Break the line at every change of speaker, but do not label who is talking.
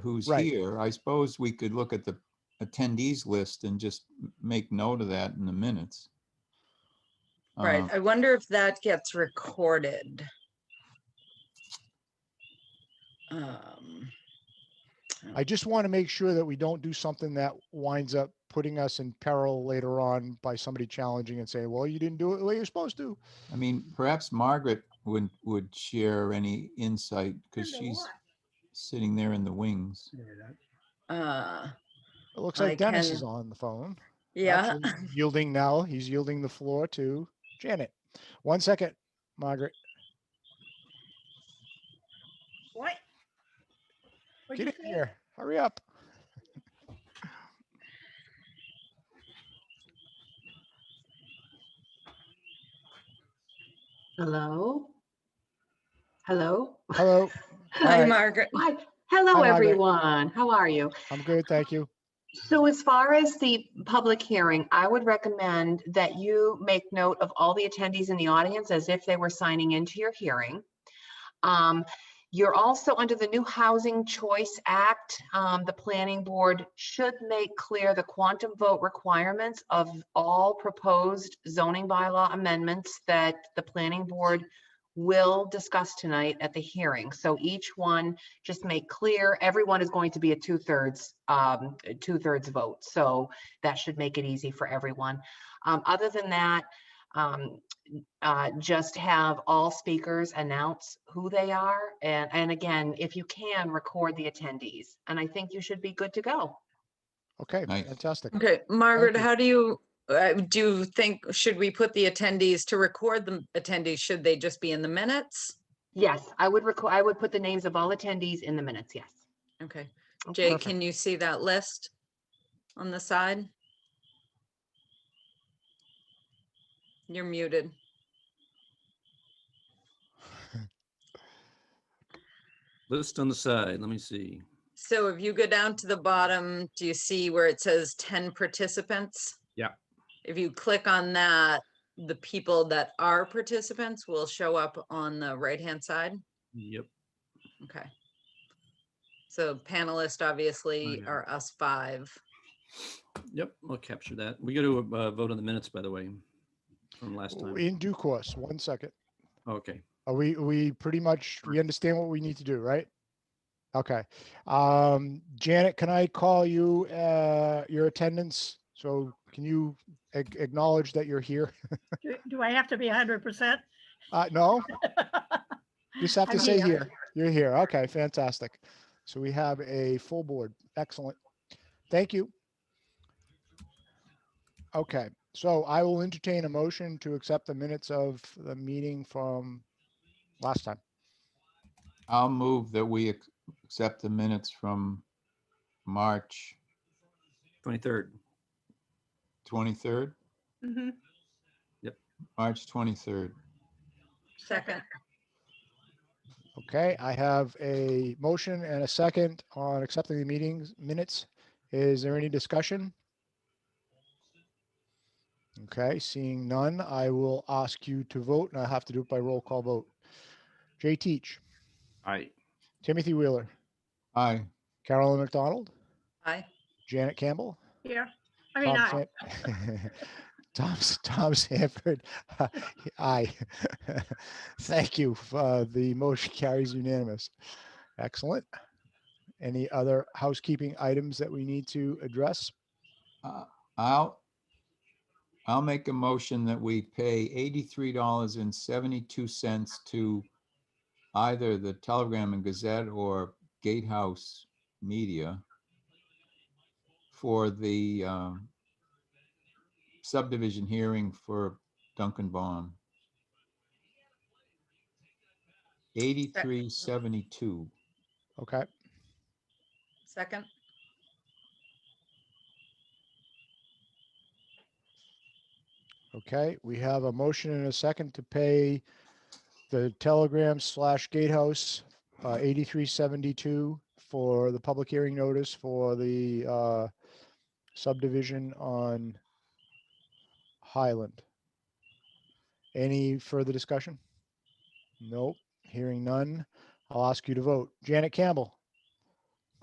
who's
Right.
here, I suppose we could look at the attendees list and just m- make note of that in the minutes.
Right,
Uh,
I wonder if that gets recorded. Um,
I just want to make sure that we don't do something that winds up putting us in peril later on by somebody challenging and saying, well, you didn't do it the way you're supposed to.
I mean, perhaps Margaret would, would share any insight because
Under
she's
what?
sitting there in the wings.
uh,
It looks
I
like Dennis
can-
is on the phone.
yeah,
Actually, Yielding now, he's yielding the floor to Janet. One second, Margaret.
What? What'd
Get
you
in
say?
here. Hurry up.
Hello? Hello?
Hello.
hi
right.
Margaret,
Hi, hello,
Margaret.
everyone. How are you?
I'm good. Thank you.
So as far as the public hearing, I would recommend that you make note of all the attendees in the audience as if they were signing into your hearing. Um, You're also under the new Housing Choice Act. um, The planning board should make clear the quantum vote requirements of all proposed zoning bylaw amendments that the planning board will discuss tonight at the hearing. So each one just make clear, everyone is going to be a two-thirds, um, a two-thirds vote. So that should make it easy for everyone. Um, other than that, um, uh, just have all speakers announce who they are. And, and again, if you can, record the attendees. And I think you should be good to go.
Okay,
Nice.
fantastic.
okay, Margaret,
you.
how do you, uh, do you think, should we put the attendees to record the attendees? Should they just be in the minutes?
Yes, I would record, I would put the names of all attendees in the minutes, yes.
Okay, Jay,
Perfect.
can you see that list on the side? You're muted.
List on the side, let me see.
So if you go down to the bottom, do you see where it says ten participants?
Yeah.
If you click on that, the people that are participants will show up on the right-hand side.
Yep,
Okay. So panelists obviously
yeah.
are us five.
yep, we'll capture that. We got to uh, vote on the minutes, by the way, from last time.
In due course, one second.
Okay,
Are we, we pretty much, we understand what we need to do, right? Okay. Um, Janet, can I call you, uh, your attendance? So can you ac- acknowledge that you're here?
Do- Do I have to be hundred percent?
Uh, no, just have
I
to
mean,
say
uh,
here. You're here. Okay, fantastic. So we have a full board. Excellent. Thank you. Okay, so I will entertain a motion to accept the minutes of the meeting from last time.
I'll move that we ac- accept the minutes from March
23rd.
23rd,
Mhm.
March 23rd.
Second,
Okay, I have a motion and a second on accepting the meetings minutes. Is there any discussion? Okay, seeing none, I will ask you to vote and I have to do it by roll call vote. Jay Teach,
Aye.
Timothy Wheeler,
Aye,
Carolyn McDonald,
aye.
Janet Campbell,
Here. I mean,
Tom,
I,
San- Tom, S- Tom Sanford, uh, aye. Thank you. Uh, the motion carries unanimous. Excellent. Any other housekeeping items that we need to address?
Uh, I'll, I'll make a motion that we pay $83.72 to either the Telegram and Gazette or Gatehouse Media for the um, subdivision hearing for Duncan Baum. 83.72.
Okay,
Second,
okay. We have a motion and a second to pay the Telegram slash Gatehouse uh, 8372 for the public hearing notice for the uh, subdivision on Highland. Any further discussion? Nope, hearing none. I'll ask you to vote. Janet Campbell,